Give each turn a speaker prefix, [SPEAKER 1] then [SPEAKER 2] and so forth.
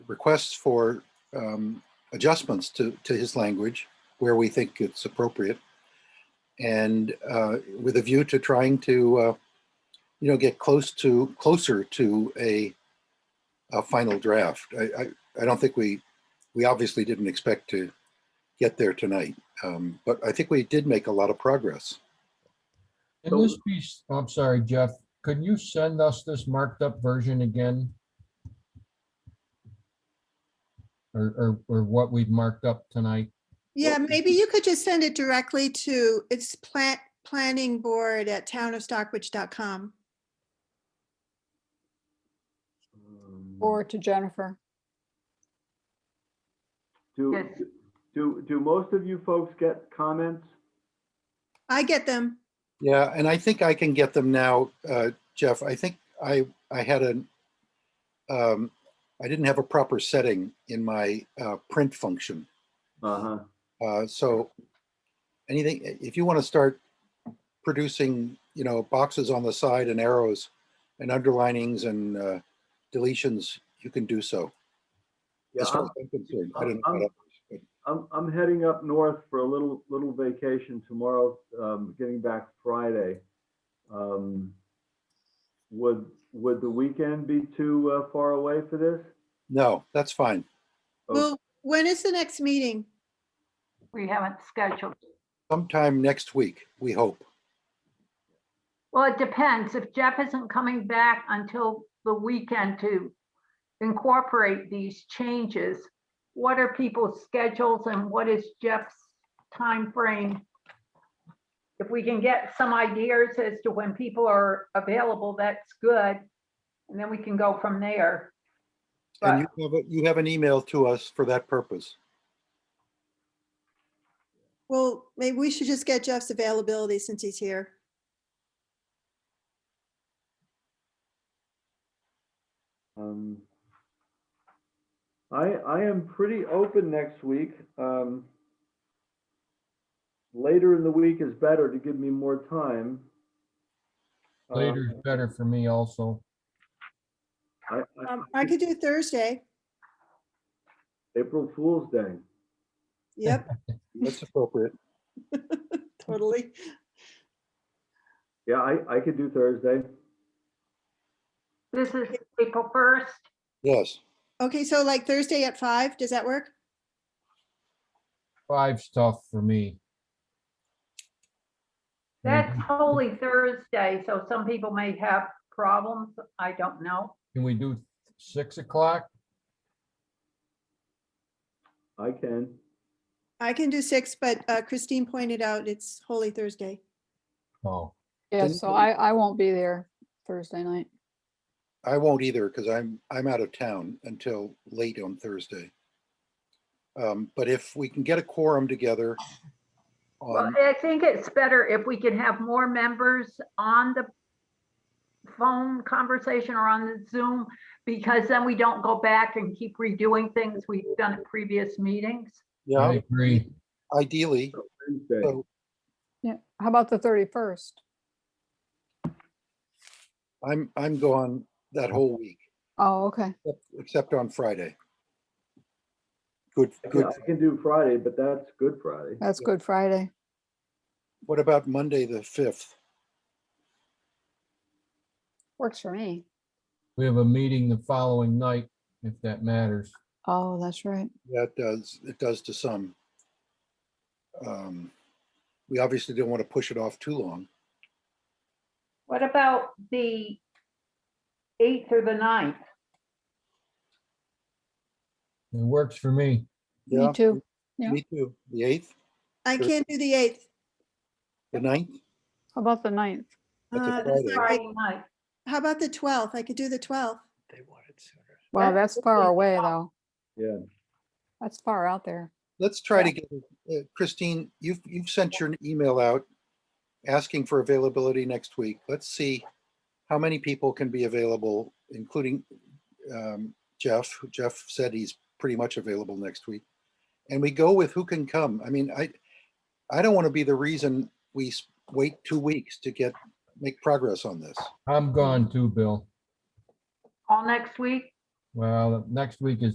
[SPEAKER 1] requests for um, adjustments to, to his language where we think it's appropriate. And uh, with a view to trying to, uh, you know, get close to, closer to a, a final draft. I, I, I don't think we, we obviously didn't expect to get there tonight. Um, But I think we did make a lot of progress.
[SPEAKER 2] Can this be, I'm sorry, Jeff, could you send us this marked up version again? Or, or, or what we've marked up tonight?
[SPEAKER 3] Yeah, maybe you could just send it directly to, it's plant, planning board at townofstockbridge.com.
[SPEAKER 4] Um,
[SPEAKER 5] Or to Jennifer.
[SPEAKER 4] Do,
[SPEAKER 6] Yes.
[SPEAKER 4] do, do most of you folks get comments?
[SPEAKER 3] I get them.
[SPEAKER 1] Yeah, and I think I can get them now, uh, Jeff. I think I, I had an, um, I didn't have a proper setting in my uh, print function.
[SPEAKER 4] Uh-huh.
[SPEAKER 1] Uh, So anything, i- if you want to start producing, you know, boxes on the side and arrows and underlinings and uh, deletions, you can do so.
[SPEAKER 4] Yeah,
[SPEAKER 1] As far
[SPEAKER 4] I'm,
[SPEAKER 1] as I'm concerned, I don't know.
[SPEAKER 4] I'm-
[SPEAKER 1] about others, but-
[SPEAKER 4] I'm, I'm heading up north for a little, little vacation tomorrow, um, getting back Friday. Um, Would, would the weekend be too uh, far away for this?
[SPEAKER 1] No, that's fine.
[SPEAKER 4] Oh,
[SPEAKER 3] Well, when is the next meeting?
[SPEAKER 6] We haven't scheduled.
[SPEAKER 1] Sometime next week, we hope.
[SPEAKER 6] Well, it depends. If Jeff isn't coming back until the weekend to incorporate these changes, what are people's schedules and what is Jeff's time frame? If we can get some ideas as to when people are available, that's good. And then we can go from there.
[SPEAKER 1] And you have, a- you have an email to us for that purpose.
[SPEAKER 3] Well, maybe we should just get Jeff's availability since he's here.
[SPEAKER 4] um, I, I am pretty open next week. Um, Later in the week is better to give me more time. Uh,
[SPEAKER 2] Later is better for me also.
[SPEAKER 4] I- I-
[SPEAKER 3] Um, I could do Thursday.
[SPEAKER 4] April Fool's Day.
[SPEAKER 3] Yep,
[SPEAKER 1] That's appropriate.
[SPEAKER 3] totally.
[SPEAKER 4] Yeah, I, I could do Thursday.
[SPEAKER 6] This is April 1st.
[SPEAKER 1] Yes,
[SPEAKER 3] Okay, so like Thursday at five, does that work?
[SPEAKER 2] Five's tough for me.
[SPEAKER 6] That's
[SPEAKER 1] Mm-hmm.
[SPEAKER 6] Holy Thursday, so some people may have problems. I don't know.
[SPEAKER 2] Can we do six o'clock?
[SPEAKER 4] I can.
[SPEAKER 3] I can do six, but uh, Christine pointed out it's Holy Thursday.
[SPEAKER 2] Oh,
[SPEAKER 5] Yeah,
[SPEAKER 1] Then-
[SPEAKER 5] so I, I won't be there Thursday night.
[SPEAKER 1] I won't either because I'm, I'm out of town until late on Thursday. Um, But if we can get a quorum together um,
[SPEAKER 6] Well,
[SPEAKER 1] on,
[SPEAKER 6] I think it's better if we can have more members on the phone conversation or on the Zoom, because then we don't go back and keep redoing things we've done at previous meetings.
[SPEAKER 2] I
[SPEAKER 1] yeah,
[SPEAKER 2] agree.
[SPEAKER 1] ideally,
[SPEAKER 4] Wednesday.
[SPEAKER 1] So-
[SPEAKER 5] Yeah, how about the thirty-first?
[SPEAKER 1] I'm, I'm gone that whole week,
[SPEAKER 5] Oh, okay.
[SPEAKER 1] except- except on Friday. Good,
[SPEAKER 4] I
[SPEAKER 1] good.
[SPEAKER 4] can- I can do Friday, but that's Good Friday.
[SPEAKER 5] That's
[SPEAKER 1] Yeah.
[SPEAKER 5] Good Friday.
[SPEAKER 1] What about Monday, the 5th?
[SPEAKER 5] Works for me.
[SPEAKER 2] We have a meeting the following night, if that matters.
[SPEAKER 5] Oh, that's right.
[SPEAKER 1] That does, it does to some. Um, We obviously don't want to push it off too long.
[SPEAKER 6] What about the eighth or the ninth?
[SPEAKER 2] It works for me.
[SPEAKER 1] Yeah,
[SPEAKER 5] Me too. yeah.
[SPEAKER 1] Me too. The 8th,
[SPEAKER 3] I
[SPEAKER 1] Sure.
[SPEAKER 3] can't do the eighth.
[SPEAKER 1] the 9th?
[SPEAKER 5] How about the ninth?
[SPEAKER 1] That's a
[SPEAKER 3] Uh, that's
[SPEAKER 1] Friday.
[SPEAKER 3] not great.
[SPEAKER 6] Friday night.
[SPEAKER 3] How about the twelfth? I could do the twelfth.
[SPEAKER 5] Wow,
[SPEAKER 6] That's
[SPEAKER 5] that's
[SPEAKER 6] the
[SPEAKER 5] far
[SPEAKER 6] big
[SPEAKER 5] away
[SPEAKER 6] drop.
[SPEAKER 5] though.
[SPEAKER 4] Yeah.
[SPEAKER 5] That's far out there.
[SPEAKER 1] Let's try to get, uh, Christine, you've, you've sent your email out asking for availability next week. Let's see how many people can be available, including um, Jeff. who- Jeff said he's pretty much available next week. And we go with who can come. I mean, I, I don't want to be the reason we s- wait two weeks to get, make progress on this.
[SPEAKER 2] I'm gone too, Bill.
[SPEAKER 6] All next week?
[SPEAKER 2] Well, next week is